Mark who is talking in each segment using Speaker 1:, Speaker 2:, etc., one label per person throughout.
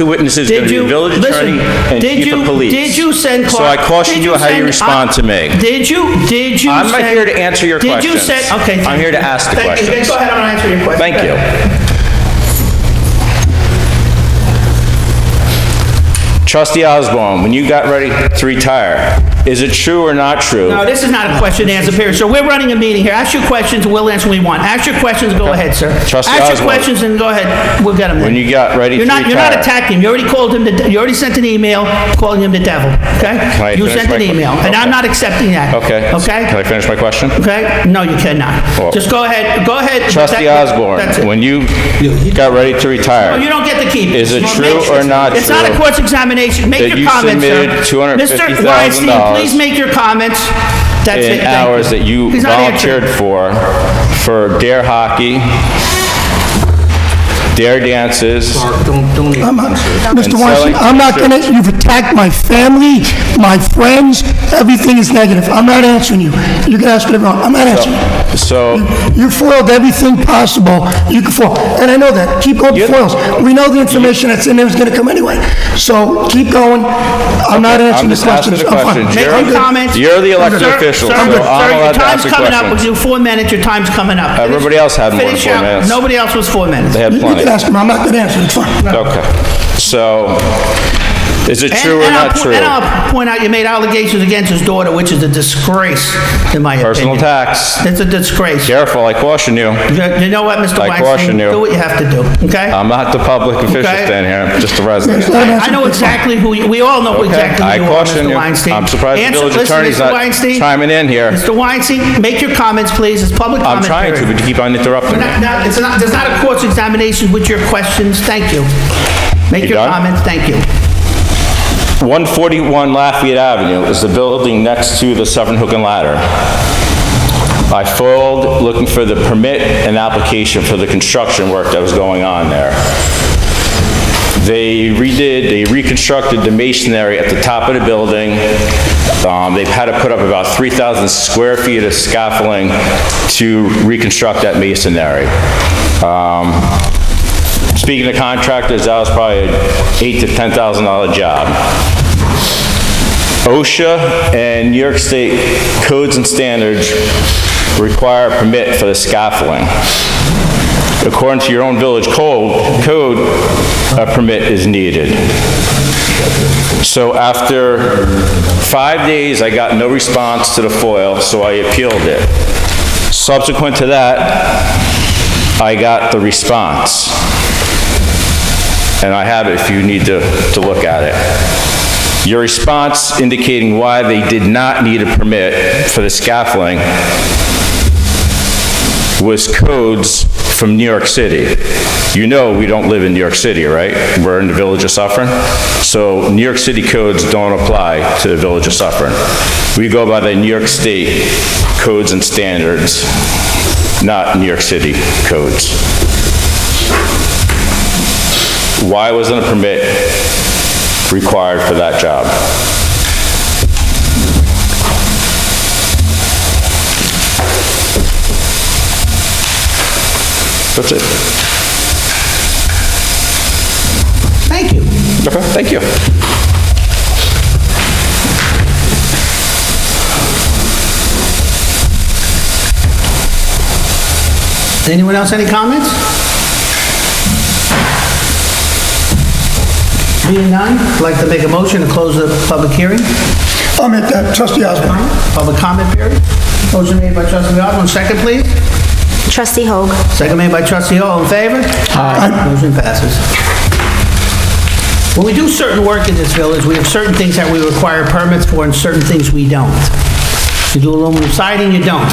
Speaker 1: Two witnesses,
Speaker 2: Did
Speaker 1: going to be
Speaker 2: you-
Speaker 1: the village attorney
Speaker 2: listen,
Speaker 1: and
Speaker 2: did
Speaker 1: chief of
Speaker 2: you-
Speaker 1: police.
Speaker 2: Did you send?
Speaker 1: So
Speaker 2: Clark-
Speaker 1: I caution
Speaker 2: did
Speaker 1: you how you
Speaker 2: send-
Speaker 1: respond to me.
Speaker 2: Did you, did you?
Speaker 1: I'm not
Speaker 2: send-
Speaker 1: here to answer your
Speaker 2: Did you
Speaker 1: questions.
Speaker 2: send, okay.
Speaker 1: I'm
Speaker 2: thank
Speaker 1: here to
Speaker 2: you.
Speaker 1: ask the
Speaker 2: Thank you. Then
Speaker 1: questions.
Speaker 2: Go ahead, I'm gonna answer your question.
Speaker 1: Thank
Speaker 2: Go
Speaker 1: you.
Speaker 2: ahead.
Speaker 1: Trustee Osborne, when you got ready to retire, is it true or not true?
Speaker 2: No, this is not a question and answer period, sir. We're running a meeting here. Ask your questions, and we'll answer what we want. Ask your questions, go ahead, sir.
Speaker 1: Trustee
Speaker 2: Ask your
Speaker 1: Oswald.
Speaker 2: questions and go ahead. We'll get them
Speaker 1: When
Speaker 2: then.
Speaker 1: you got ready to
Speaker 2: You're not,
Speaker 1: retire?
Speaker 2: you're not attacking him. You already called him, the de- you already sent an email calling him the devil,
Speaker 1: I
Speaker 2: okay? You
Speaker 1: finish
Speaker 2: sent
Speaker 1: my
Speaker 2: an
Speaker 1: que-
Speaker 2: email, and I'm
Speaker 1: Okay.
Speaker 2: not accepting that.
Speaker 1: Okay. Can I
Speaker 2: Okay?
Speaker 1: finish my question?
Speaker 2: Okay? No, you
Speaker 1: Well-
Speaker 2: cannot. Just go ahead, go ahead.
Speaker 1: Oh. Trustee
Speaker 2: That-
Speaker 1: Osborne,
Speaker 2: that's it.
Speaker 1: when you got ready to retire?
Speaker 2: No, you don't get to keep it.
Speaker 1: Is it
Speaker 2: Well,
Speaker 1: true
Speaker 2: make-
Speaker 1: or not
Speaker 2: It's not a
Speaker 1: true
Speaker 2: court's examination. Make
Speaker 1: that
Speaker 2: your
Speaker 1: you
Speaker 2: comments, sir.
Speaker 1: submitted $250,000
Speaker 2: Mr. Weinstein, please make your comments. That's it,
Speaker 1: in
Speaker 2: thank you.
Speaker 1: hours that you
Speaker 2: He's not
Speaker 1: volunteered
Speaker 2: answering.
Speaker 1: for, for dare hockey, dare dances,
Speaker 3: I'm not- Mr.
Speaker 1: selling
Speaker 3: Weinstein, I'm not gonna, you've attacked my family, my friends, everything is negative. I'm not answering you. You can ask whatever, you want. I'm not answering.
Speaker 1: so
Speaker 3: You foiled everything possible you could foil, and I know that. Keep going with
Speaker 1: You're-
Speaker 3: foils. We know the information that's in there is gonna come anyway. So keep going. I'm not
Speaker 1: I'm
Speaker 3: answering the
Speaker 1: just asking
Speaker 3: questions.
Speaker 1: the
Speaker 3: I'm fine.
Speaker 1: question.
Speaker 2: Make
Speaker 1: You're-
Speaker 3: I'm
Speaker 2: your
Speaker 3: good.
Speaker 2: comments.
Speaker 1: You're the elected
Speaker 2: Sir-
Speaker 1: official,
Speaker 2: sir,
Speaker 1: so I'm
Speaker 2: sir,
Speaker 1: allowed to ask a
Speaker 2: Your time's coming up,
Speaker 1: question.
Speaker 2: with you four minutes, your time's coming up.
Speaker 1: Everybody else had more than
Speaker 2: Finish
Speaker 1: four
Speaker 2: out.
Speaker 1: minutes.
Speaker 2: Nobody else was four minutes.
Speaker 1: they had
Speaker 3: You
Speaker 1: plenty.
Speaker 3: can ask them, I'm not gonna answer, it's fine.
Speaker 1: Okay, so, is it
Speaker 2: And-
Speaker 1: true or
Speaker 2: and I'll
Speaker 1: not
Speaker 2: po-
Speaker 1: true?
Speaker 2: And I'll point out, you made allegations against his daughter, which is a disgrace, in my opinion.
Speaker 1: Personal tax,
Speaker 2: It's a disgrace.
Speaker 1: careful, I caution you,
Speaker 2: You you know what, Mr.
Speaker 1: I
Speaker 2: Weinstein?
Speaker 1: caution you. Um,
Speaker 2: Do what you have to do, okay?
Speaker 1: I'm not the public official
Speaker 2: Okay.
Speaker 1: standing here, I'm just a resident.
Speaker 3: It's not answering.
Speaker 2: I know exactly who, you- we all know
Speaker 1: Okay,
Speaker 2: exactly
Speaker 1: I
Speaker 2: who you are,
Speaker 1: caution
Speaker 2: Mr.
Speaker 1: you.
Speaker 2: Weinstein.
Speaker 1: I'm surprised the
Speaker 2: Answer-
Speaker 1: village
Speaker 2: listen,
Speaker 1: attorney's
Speaker 2: Mr.
Speaker 1: not
Speaker 2: Weinstein,
Speaker 1: chiming in here.
Speaker 2: Mr. Weinstein, make your comments, please, it's public
Speaker 1: I'm
Speaker 2: comment
Speaker 1: trying to,
Speaker 2: period.
Speaker 1: but you keep on interrupting me.
Speaker 2: Not- not- it's not- There's not a course examination with your questions, thank you. Make
Speaker 1: You
Speaker 2: your
Speaker 1: done?
Speaker 2: comments, thank you.
Speaker 1: 141 Lafayette Avenue is the building next to the Severn Hook and Ladder. I filed looking for the permit and application for the construction work that was going on there. They redid, they reconstructed the masonry at the top of the building. Um, They've had to put up about 3,000 square feet of scaffolding to reconstruct that masonry. Um, Speaking of contractors, that was probably an eight to ten thousand dollar job. OSHA and New York State codes and standards require a permit for the scaffolding. According to your own village code, code, a permit is needed. So after five days, I got no response to the FOIL, so I appealed it. Subsequent to that, I got the response. And I have it if you need to, to look at it. Your response indicating why they did not need a permit for the scaffolding was codes from New York City. You know we don't live in New York City, right? We're in the Village of Suffering. So New York City codes don't apply to the Village of Suffering. We go by the New York State codes and standards, not New York City codes. Why wasn't a permit required for that job? That's it.
Speaker 2: Thank you.
Speaker 1: Okay, thank you.
Speaker 2: Anyone else, any comments? Being none, I'd like to make a motion to close the public hearing,
Speaker 3: I'll make that, trustee Osborne.
Speaker 2: public comment period. Motion made by trustee Osborne, second please.
Speaker 4: Trustee Hoag.
Speaker 2: Second made by trustee Hall, in favor? Aye. Motion passes. When we do certain work in this village, we have certain things that we require permits for and certain things we don't. You do aluminum siding, you don't.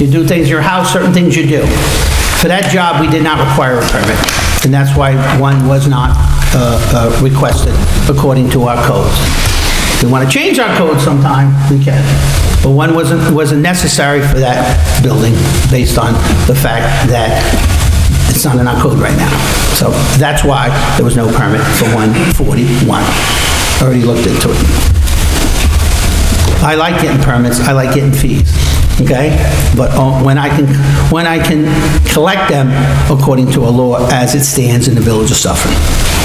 Speaker 2: You do things in your house, certain things you do. For that job, we did not require a permit, and that's why one was not uh, uh, requested according to our codes. If we want to change our code sometime, we can. But one wasn't, wasn't necessary for that building based on the fact that it's not in our code right now. So that's why there was no permit for 141. I Already looked into it. I like getting permits, I like getting fees, okay? But uh, when I can, when I can collect them according to a law as it stands in the Village of Suffolk.